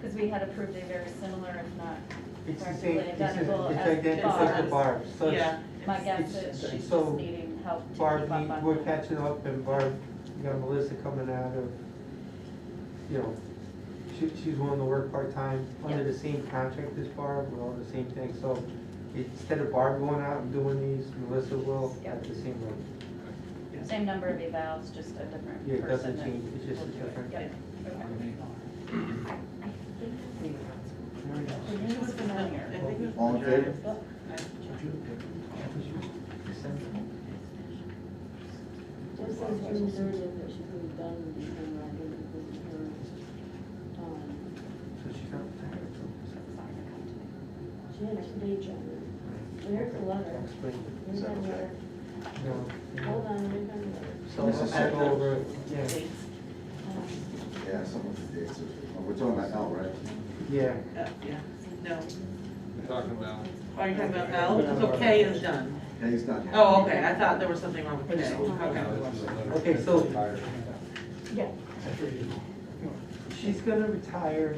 Because we had approved a very similar, if not It's the practically same, it's just, it's identical like as that, the it's like the bar. Barb, such. Yeah. My guess It's- is she's just so needing help to keep Barb, up on. we- we're catching up and Barb, you got Melissa coming out of, you know, she, she's willing to work part-time under Yeah. the same contract as Barb, with all the same things, so instead of Barb going out and doing these, Melissa will Yeah. at the same rate. Same number of evals, just a different person. Yeah, it doesn't that change, it's just will a do it. different- Yep. Very nice. The name was familiar. All in favor? Just says June thirtieth, it should be done before I go to the hearing. Um, So she's not retired, so. She had a day job. There's a letter. I'll explain. We've got another, No, hold on, we've got another. So This is I go separate. over, yeah, um, Yeah, some of the dates, are- oh, we're talking about L, right? yeah. Yeah, no. We're talking about, Are you talking about L? So K is done. Yeah, he's not. Oh, okay, I thought there was something wrong with K. Okay. no, this is a letter. Okay, so- Yeah, She's gonna retire.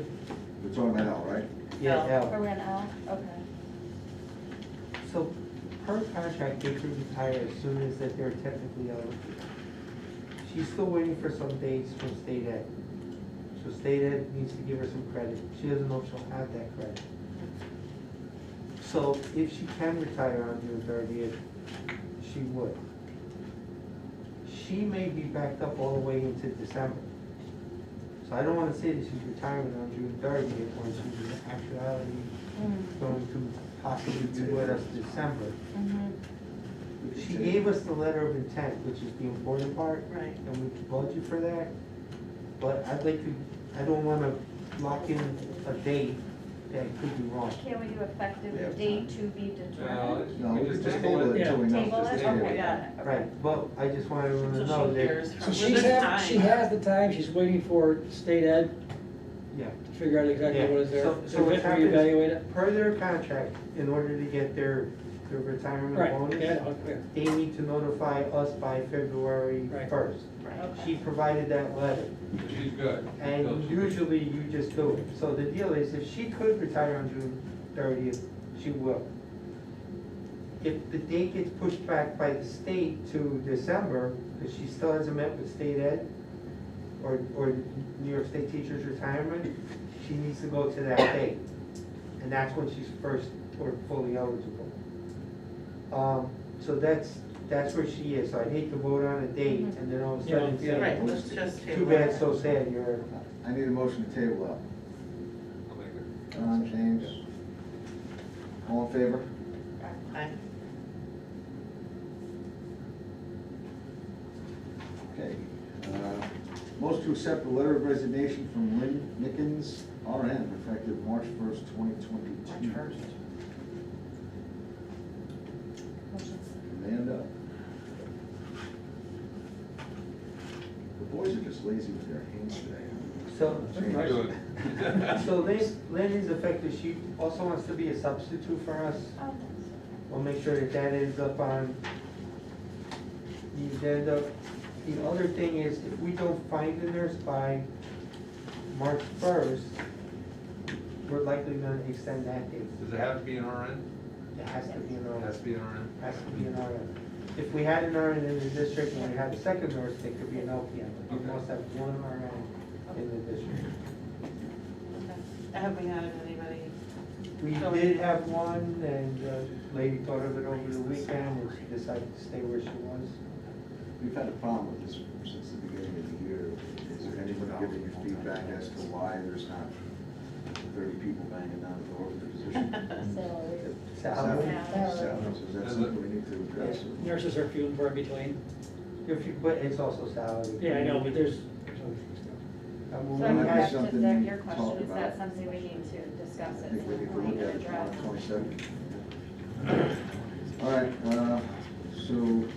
We're talking about L, right? Yeah. Or we're an L, okay. So her contract, they could retire as soon as that they're technically eligible. She's still waiting for some dates from state ed. So state ed needs to give her some credit. She doesn't know if she'll have that credit. So if she can retire on June thirtieth, she would. She may be backed up all the way into December. So I don't wanna say that she's retiring on June thirtieth when she's in actuality going to possibly be with us December. She gave us the letter of intent, which is the important part, Right. and we can budget for that. But I'd like to, I don't wanna lock in a date that could be wrong. Can we do We have effective time. date to be determined? No, we could just just table it until we know. Table Just it, table okay, it. got it. okay. Right, but I just wanted everyone to So know she that, hears. So from- she's Well, there's had, she time. has the time, she's waiting for state ed yeah. to figure out exactly yeah. what is there. So- So So we what happens, reevaluate it. per their contract, in order to get their, their retirement Right, bonus, yeah, okay, they need to notify us by February Right. first. She provided that letter. She's good. And usually you just do it. So the deal is, if she could retire on June thirtieth, she will. If the date gets pushed back by the state to December, because she still hasn't met with state ed or, or New York State Teachers Retirement, she needs to go to that date. And that's when she's first or fully eligible. Um, so that's, that's where she is. So I'd hate to vote on a date and then all of a sudden Yeah, yeah. say, Right, let's just too table it. bad, so sad, you're I need a motion to table up. I'll make it. Don, James, all in favor? Aye. Okay. Uh, Motion to accept the letter of resignation from Lynn Nickens, RN, effective March first, twenty twenty-two. Amanda. The boys are just lazy with their hands today. So, Right. Good. so Lynn, Lynn is affected, she also wants to be a substitute for us. Oh, We'll make sure that that ends up on the agenda. The other thing is, if we don't find a nurse by March first, we're likely gonna extend that date. Does it have to be an RN? It has to be an It has RN, to be an RN? has to be an RN. If we had an RN in the district and we had a second nurse, it could be an LPN, but we Okay. must have one RN in the district. Have we had anybody? We did have one, and the lady thought of it over the weekend, and she decided to stay where she was. We've had a problem with this since the beginning of the year. Is there anyone giving you feedback as to why there's not thirty people banging down the door for the position? so, So, Salaries, is that something we need to address? Nurses are few and far between. if you, but it's also salary. Yeah, I know, but there's. So I mean, we I'm Well, back had- that's to something the- your to talk question, is about. that something we need to I discuss at think we some need to look point at and it address? tomorrow, twenty-second. All right, uh, so,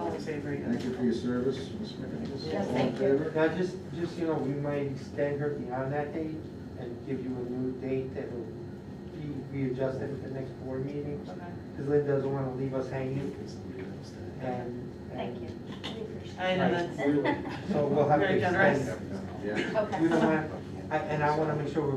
All uh, in favor, yeah. thank you for your service, Ms. McInnes. Yes, All in thank you. favor? Now, just, just, you know, we might extend her beyond that date and give you a new date that will be readjusted at the next board meeting, because Lynn doesn't want to leave us hanging, and. and Thank you. I know that's. So we'll have to Very extend generous. it. Yeah. Okay. We don't want, I- and I want to make sure we're